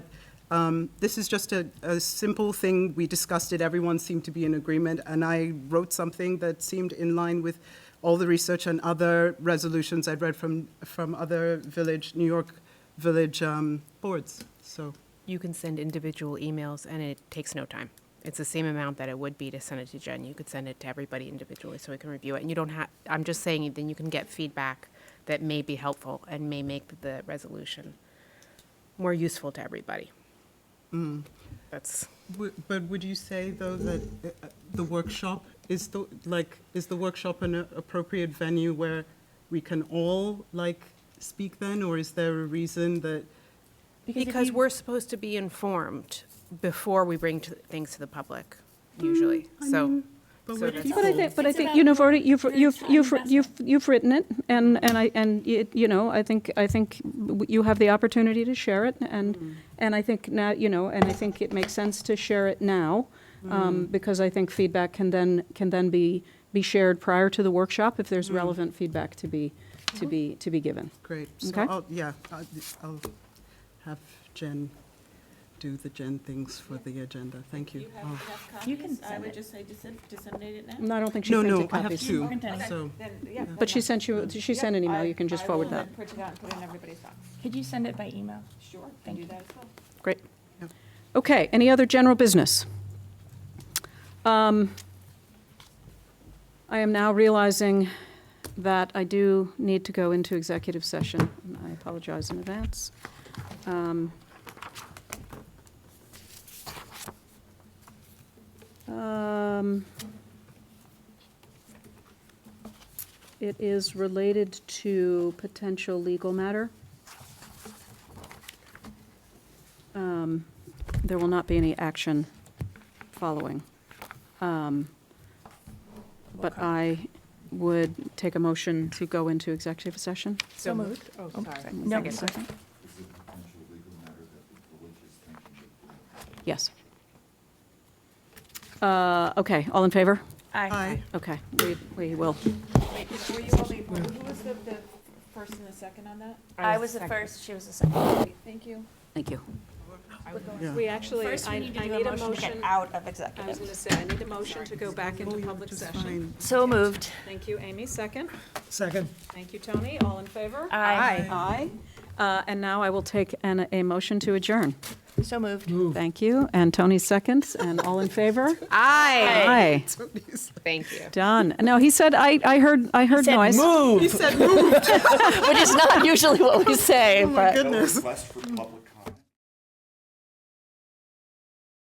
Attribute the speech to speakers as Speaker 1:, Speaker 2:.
Speaker 1: Um, This is just a, a simple thing, we discussed it, everyone seemed to be in agreement, and I wrote something that seemed in line with all the research and other resolutions I'd read from, from other village, New York village um, boards, so.
Speaker 2: You can send individual emails, and it takes no time. It's the same amount that it would be to send it to Jen. You could send it to everybody individually so we can review it. And you don't have, I'm just saying, then you can get feedback that may be helpful and may make the resolution more useful to everybody. That's,
Speaker 1: W- But would you say, though, that uh, the workshop is the, like, is the workshop an appropriate venue where we can all, like, speak then? Or is there a reason that,
Speaker 3: if
Speaker 2: because
Speaker 3: you-
Speaker 2: we're supposed to be informed before we bring to- things to the public, usually, so.
Speaker 1: but
Speaker 2: so
Speaker 1: we're
Speaker 2: that's-
Speaker 1: people-
Speaker 3: But I think, but I
Speaker 4: It's
Speaker 3: think,
Speaker 4: about
Speaker 3: you know, already, you've,
Speaker 4: the
Speaker 3: you've,
Speaker 4: time
Speaker 3: you've,
Speaker 4: investment.
Speaker 3: you've, you've written it, and, and I, and, it- you know, I think, I think w- you have the opportunity to share it,
Speaker 4: Mm-hmm.
Speaker 3: and, and I think now, you know, and I think it makes sense to share it now, um,
Speaker 4: Mm-hmm.
Speaker 3: because I think feedback can then, can then be, be shared prior to the workshop, if there's
Speaker 4: Mm-hmm.
Speaker 3: relevant feedback to be, to be, to be given.
Speaker 1: Great. So,
Speaker 3: Okay.
Speaker 1: I'll- yeah, I'll- I'll have Jen do the Jen things for the agenda. Thank you.
Speaker 4: You have
Speaker 1: Oh.
Speaker 4: enough
Speaker 5: You can
Speaker 4: copies? I
Speaker 5: send
Speaker 4: would
Speaker 5: it. Mm-hmm.
Speaker 4: just say dissem- disseminate it now.
Speaker 3: And I don't think she
Speaker 1: No,
Speaker 3: printed
Speaker 1: no, I
Speaker 3: copies.
Speaker 1: have two,
Speaker 4: Okay.
Speaker 1: so,
Speaker 4: Then, yeah.
Speaker 3: But she sent you, she sent an email, you can just forward
Speaker 4: Mm-hmm. I will
Speaker 3: that.
Speaker 4: then print it out and put it in everybody's box.
Speaker 5: Could you send it by email?
Speaker 4: Sure, can
Speaker 5: Thank
Speaker 4: do
Speaker 5: you.
Speaker 4: that as well.
Speaker 3: Great.
Speaker 1: Yeah.
Speaker 3: Okay, any other general business? Um, I am now realizing that I do need to go into executive session. and I apologize in advance. Um, um, It is related to potential legal matter. Um, There will not be any action following. Um, But I would take a motion to go into executive session.
Speaker 5: So moved.
Speaker 2: Oh,
Speaker 5: Oh,
Speaker 2: sorry.
Speaker 3: One
Speaker 5: No.
Speaker 3: second. Yes. Uh, Okay, all in favor?
Speaker 1: Aye.
Speaker 3: Okay, we we will.
Speaker 4: Wait, were you only, who was the, the first and the second on that?
Speaker 2: I
Speaker 5: I
Speaker 2: was
Speaker 5: was the
Speaker 2: second.
Speaker 5: first, she was the second.
Speaker 4: Great, Thank you.
Speaker 3: Thank you.
Speaker 1: Yeah.
Speaker 3: We actually,
Speaker 5: First, we need to do a motion to get out of executive.
Speaker 3: to say, I need a motion to go back into public session.
Speaker 1: Fine.
Speaker 5: So moved.
Speaker 3: Thank you, Amy, second.
Speaker 1: Second.
Speaker 3: Thank you, Tony, all in favor?
Speaker 5: Aye.
Speaker 3: Aye. Uh, And now I will take an, a motion to adjourn.
Speaker 5: So moved.
Speaker 3: Thank you, and Tony seconds, and all in favor?
Speaker 2: Aye.
Speaker 3: Aye,
Speaker 2: Thank you.
Speaker 3: done. No, he said, I, I heard, I heard
Speaker 5: said
Speaker 3: noise.
Speaker 1: He said, move,
Speaker 5: Which is not usually what we say, but.
Speaker 1: goodness.
Speaker 6: request for public